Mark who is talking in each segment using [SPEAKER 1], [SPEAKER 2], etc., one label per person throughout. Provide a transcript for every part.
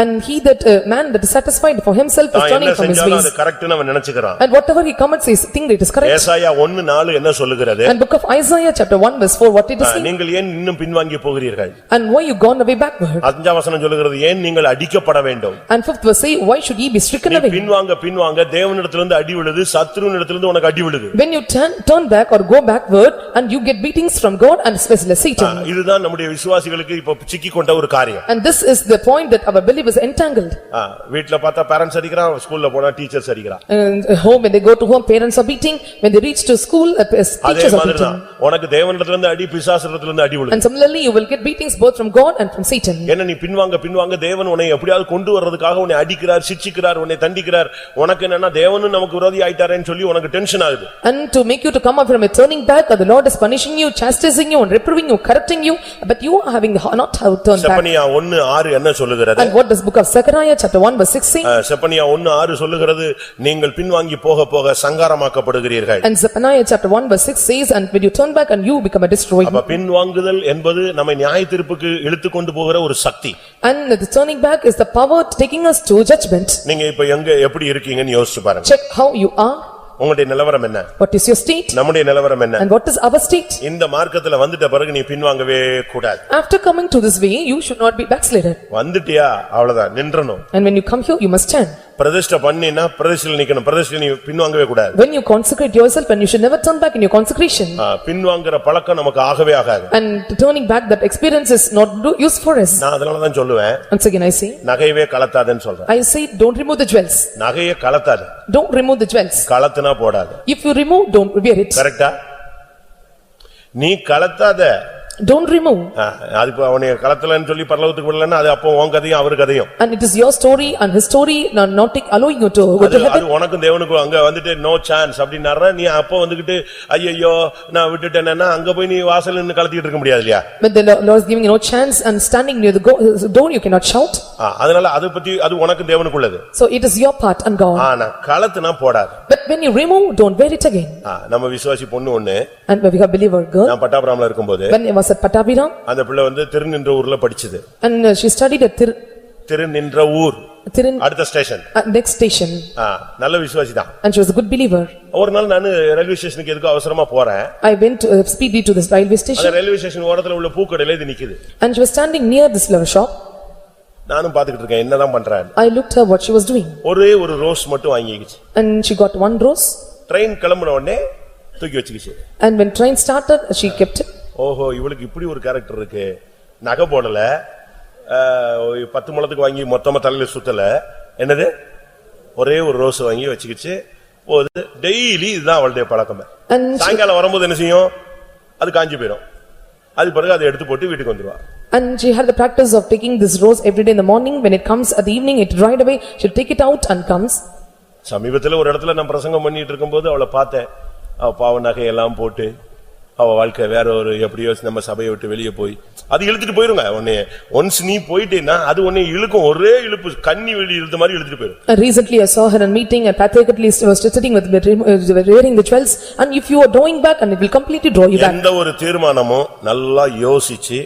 [SPEAKER 1] And he that, uh, man that is satisfied for himself is
[SPEAKER 2] தான்
[SPEAKER 1] turning
[SPEAKER 2] என்ன
[SPEAKER 1] from his
[SPEAKER 2] செஞ்சாலும் அது
[SPEAKER 1] ways.
[SPEAKER 2] கரெக்ட்னு அவன் நினைச்சுக்கிறான்
[SPEAKER 1] And whatever he commits, he think that it is correct.
[SPEAKER 2] ஏசாயா ஒன்னு நாலு என்ன சொல்லுகிறது
[SPEAKER 1] And book of Isaiah, chapter one, verse four, what it is
[SPEAKER 2] ah,
[SPEAKER 1] saying?
[SPEAKER 2] நீங்கள் ஏன் இன்னும் பின்வாங்கி போகிறீர்கள்
[SPEAKER 1] And why you gone away backward?
[SPEAKER 2] அஞ்சாம் வசனம் சொல்லுகிறது ஏன் நீங்கள் அடிக்கப்பட வேண்டும்
[SPEAKER 1] And fifth verse say, why should ye be stricken
[SPEAKER 2] நீ
[SPEAKER 1] away?
[SPEAKER 2] பின்வாங்க பின்வாங்க தேவனிடத்திலிருந்து அடி விழுது சத்ருவினிடத்திலிருந்து உனக்கு அடி விழுது
[SPEAKER 1] When you turn, turn back or go backward and you get beatings from God and especially Satan.
[SPEAKER 2] இதுதான் நம்முடைய விசுவாசிகளுக்கு இப்ப சிக்கிக் கொண்ட ஒரு காரியம்
[SPEAKER 1] And this is the point that our believers entangled.
[SPEAKER 2] ஆ, வீட்ல பார்த்தா பேரண்ட்ஸ் அடிக்கிறான் ஸ்கூல்ல போனா டீச்சர்ஸ் அடிக்கிறான்
[SPEAKER 1] And uh, home, when they go to home, parents are beating. When they reach to school, uh,
[SPEAKER 2] அதே
[SPEAKER 1] teachers are
[SPEAKER 2] மாதிரிதான்
[SPEAKER 1] beating.
[SPEAKER 2] உனக்கு தேவனிடத்திலிருந்து அடி பிசாசிடத்திலிருந்து அடி விழுது
[SPEAKER 1] And similarly, you will get beatings both from God and from Satan.
[SPEAKER 2] என்ன நீ பின்வாங்க பின்வாங்க தேவன் உன்னை எப்படியாவது கொண்டு வர்றதுக்காக உன்னை அடிக்கிறார் சிட்சிக்கிறார் உன்னை தண்டிக்கிறார் உனக்கு என்னன்னா தேவனும் நமக்கு விரோதி ஆயிட்டாரேன்னு சொல்லி உனக்கு டென்ஷன் ஆகுது
[SPEAKER 1] And to make you to come up from a turning back, or the Lord is punishing you, chastising you, and reproving you, correcting you, but you are having not have turned back.
[SPEAKER 2] Zephaniah ஒன்னு ஆறு என்ன சொல்லுகிறது
[SPEAKER 1] And what does book of Zechariah, chapter one, verse six say?
[SPEAKER 2] அஹ், செப்பனியா ஒன்னு ஆறு சொல்லுகிறது நீங்கள் பின்வாங்கி போக போக சங்காரமாக்கப்படுகிறீர்கள்
[SPEAKER 1] And Zechariah, chapter one, verse six says, and when you turn back and you become a destroyer.
[SPEAKER 2] அப்ப பின்வாங்குதல் என்பது நம்மை நியாயத்தீர்ப்புக்கு இழுத்துக்கொண்டு போகிற ஒரு சக்தி
[SPEAKER 1] And the turning back is the power taking us to judgment.
[SPEAKER 2] நீங்க இப்ப எங்க எப்படி இருக்கீங்கன்னு யோசிச்சு பாருங்க
[SPEAKER 1] Check how you are,
[SPEAKER 2] உங்களுடைய நிலவரம் என்ன
[SPEAKER 1] what is your state,
[SPEAKER 2] நம்முடைய நிலவரம் என்ன
[SPEAKER 1] and what is our state.
[SPEAKER 2] இந்த மார்க்கத்துல வந்துட்ட பிறகு நீ பின்வாங்கவே கூடாது
[SPEAKER 1] After coming to this way, you should not be backslidden.
[SPEAKER 2] வந்துட்டியா அவ்வளவுதான் நின்றணும்
[SPEAKER 1] And when you come here, you must stand.
[SPEAKER 2] பிரதிஷ்ட பண்ணினா பிரதிஷ்டையில் நிக்கணும் பிரதிஷ்டை நீ பின்வாங்கவே கூடாது
[SPEAKER 1] When you consecrate yourself, and you should never turn back in your consecration.
[SPEAKER 2] ஆ, பின்வாங்குற பழக்கம் நமக்கு ஆகவே ஆகாது
[SPEAKER 1] And turning back, that experience is not do- use for us.
[SPEAKER 2] நான் அதனாலதான் சொல்லுவேன்
[SPEAKER 1] Once again, I say,
[SPEAKER 2] நகையவே கலத்தாதேன்னு சொல்றேன்
[SPEAKER 1] I say, don't remove the jewels,
[SPEAKER 2] நகைய கலத்தாது
[SPEAKER 1] don't remove the jewels.
[SPEAKER 2] கலத்துனா போடாது
[SPEAKER 1] If you remove, don't wear it,
[SPEAKER 2] கரெக்டா நீ கலத்தாத
[SPEAKER 1] don't remove.
[SPEAKER 2] ஆ, அது இப்ப அவனை கலத்தலன்னு சொல்லி பரலோகத்துக்கு விடலன்னா அது அப்போ உன் கதையும் அவர் கதையும்
[SPEAKER 1] And it is your story and his story, not not take- allowing you to go
[SPEAKER 2] அது
[SPEAKER 1] to heaven.
[SPEAKER 2] அது உனக்கும் தேவனுக்கும் அங்க வந்துட்டு நோ சான்ஸ் அப்படின்னாரு நீ அப்போ வந்துகிட்டு ஐயையோ நான் விட்டுட்டேன்னா அங்க போய் நீ வாசல் நின்னு கலத்திட்டு இருக்க முடியாது இல்லையா
[SPEAKER 1] But the Lo- Lord is giving you no chance and standing near the go- uh, door, you cannot shout.
[SPEAKER 2] ஆ, அதனால அதை பத்தி அது உனக்கும் தேவனுக்குள்ளது
[SPEAKER 1] So it is your part and God.
[SPEAKER 2] ஆனா கலத்துனா போடாது
[SPEAKER 1] But when you remove, don't wear it again.
[SPEAKER 2] ஆ, நம்ம விசுவாசி பொண்ணு ஒண்ணு
[SPEAKER 1] And when we have believer girl,
[SPEAKER 2] நான் பட்டாபுராம்ல இருக்கும்போது
[SPEAKER 1] when it was at Pattabhiram,
[SPEAKER 2] அந்த பிள்ளை வந்து திருநின்ற ஊர்ல படிச்சது
[SPEAKER 1] and uh, she studied at Thir-
[SPEAKER 2] திருநின்ற ஊர்
[SPEAKER 1] Thirin,
[SPEAKER 2] அடுத்த ஸ்டேஷன்
[SPEAKER 1] at next station,
[SPEAKER 2] நல்ல விசுவாசி தான்
[SPEAKER 1] and she was a good believer.
[SPEAKER 2] ஒரு நாள் நான் ரயில்வே ஸ்டேஷனுக்கு எதுக்கோ அவசரமா போறேன்
[SPEAKER 1] I went uh, speedily to this railway
[SPEAKER 2] அந்த
[SPEAKER 1] station,
[SPEAKER 2] ரயில்வே ஸ்டேஷன் ஓரத்துல உள்ள பூக்கடையில இது நிக்குது
[SPEAKER 1] and she was standing near this flower shop.
[SPEAKER 2] நானும் பாத்துக்கிட்டு இருக்கேன் என்னதான் பண்றேன்
[SPEAKER 1] I looked her what she was doing,
[SPEAKER 2] ஒரே ஒரு ரோஸ் மட்டும் வாங்கிக்கிச்சு
[SPEAKER 1] and she got one rose,
[SPEAKER 2] train கிளம்புன உடனே தூக்கி வச்சுக்கிச்சு
[SPEAKER 1] and when train started, she kept it.
[SPEAKER 2] ஓஹோ இவளுக்கு இப்படி ஒரு கேரக்டர் இருக்கு நகை போடல ஆஹ், ஒரு பத்து முழத்துக்கு வாங்கி மொத்தமா தலையில சுத்தல என்னது ஒரே ஒரு ரோஸ் வாங்கி வச்சுக்கிச்சு போகுது டெய்லி இதுதான் அவளுடைய பழக்கமே
[SPEAKER 1] And, she-
[SPEAKER 2] சாயங்காலம் வரும்போது என்ன செய்யும் அது காஞ்சி போயிடும் அது பிறகு அதை எடுத்து போட்டு வீட்டுக்கு வந்துருவா
[SPEAKER 1] and she had the practice of taking this rose every day in the morning, when it comes at the evening, it dried away, she'll take it out and comes.
[SPEAKER 2] சமீபத்துல ஒரு இடத்துல நான் பிரசங்கம் பண்ணிட்டு இருக்கும்போது அவளை பார்த்தேன் அவ பாவ நகையெல்லாம் போட்டு அவ வாழ்க்கை வேற ஒரு எப்படியோ நம்ம சபையை விட்டு வெளியே போய் அது இழுத்துட்டு போயிருங்க உன்னை ஒன்ஸ் நீ போயிட்டேன்னா அது உன்னை இழுக்கும் ஒரே இழுப்பு கண்ணி வெளி இழுத்த மாதிரி இழுத்துட்டு போயிரும்
[SPEAKER 1] And Recently, I saw her in a meeting and pathetically she was sitting with, with- with wearing the jewels and if you are drawing back and it will completely draw you back.
[SPEAKER 2] எந்த ஒரு தீர்மானமும் நல்லா யோசிச்சு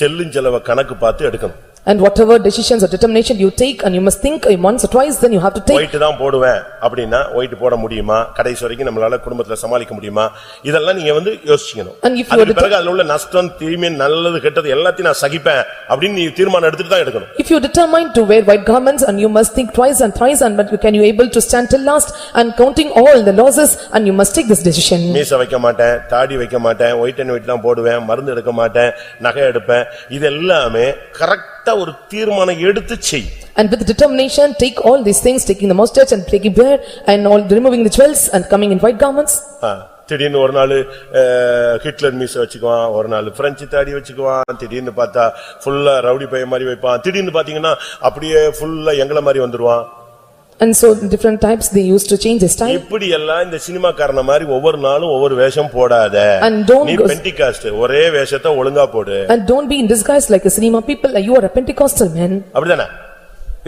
[SPEAKER 2] செல்லும் செலவை கணக்கு பார்த்து எடுக்கணும்
[SPEAKER 1] And whatever decisions or determination you take and you must think once or twice, then you have to take.
[SPEAKER 2] White தான் போடுவேன் அப்படின்னா ஒயிட் போட முடியுமா கடைசி வரைக்கும் நம்மளால குடும்பத்துல சமாளிக்க முடியுமா இதெல்லாம் நீங்க வந்து யோசிக்கணும்
[SPEAKER 1] And if you
[SPEAKER 2] அதுக்கு
[SPEAKER 1] were to-
[SPEAKER 2] பிறகு அதுல உள்ள நஷ்டம் தீமை நல்லது கெட்டது எல்லாத்தையும் நான் சகிப்பேன் அப்படின்னு நீ தீர்மானம் எடுத்துட்டு தான் எடுக்கணும்
[SPEAKER 1] If you determine to wear white garments and you must think twice and thrice and but you can you able to stand till last and counting all the losses and you must take this decision.
[SPEAKER 2] மீச வைக்க மாட்டேன் தாடி வைக்க மாட்டேன் white and white தான் போடுவேன் மருந்து எடுக்க மாட்டேன் நகை எடுப்பேன் இது எல்லாமே கரெக்டா ஒரு தீர்மானம் எடுத்து செய்
[SPEAKER 1] And with determination, take all these things, taking the mustache and plaguey beard and all removing the jewels and coming in white garments.
[SPEAKER 2] ஆ, திடீர்னு ஒரு நாள் அஹ், ஹிட்லர் மீச வச்சுக்குவான் ஒரு நாள் பிரெஞ்சு தாடி வச்சுக்குவான் திடீர்னு பார்த்தா ஃபுல்லா ரவுடி பையன் மாதிரி வைப்பான் திடீர்னு பாத்தீங்கன்னா அப்படியே ஃபுல்லா எங்கள மாதிரி வந்துருவான்
[SPEAKER 1] And so different types, they used to change their style.
[SPEAKER 2] இப்படி எல்லாம் இந்த சினிமாக்காரன மாதிரி ஒவ்வொரு நாளும் ஒவ்வொரு வேஷம் போடாத
[SPEAKER 1] And don't
[SPEAKER 2] நீ
[SPEAKER 1] go-
[SPEAKER 2] பெண்டிகாஸ்ட் ஒரே வேஷத்தை ஒழுங்கா போடு
[SPEAKER 1] And don't be in disguise like a cinema people, you are a Pentecostal man.
[SPEAKER 2] அப்படிதானே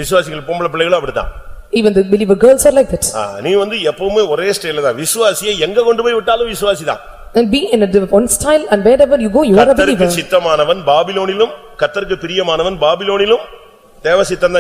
[SPEAKER 2] விசுவாசிகள் பொம்பளை பிள்ளைகளும் அப்படிதான்
[SPEAKER 1] Even the believer girls are like that.
[SPEAKER 2] ஆ, நீ வந்து எப்பவுமே ஒரே ஸ்டைல தான் விசுவாசியை எங்க கொண்டு போய் விட்டாலும் விசுவாசிதான்
[SPEAKER 1] And be in a div- one style and wherever you go, you are a
[SPEAKER 2] கத்தருக்கு
[SPEAKER 1] believer.
[SPEAKER 2] சித்தமானவன் பாபிலோனிலும் கத்தருக்கு பிரியமானவன் பாபிலோனிலும் தேவசித்தம்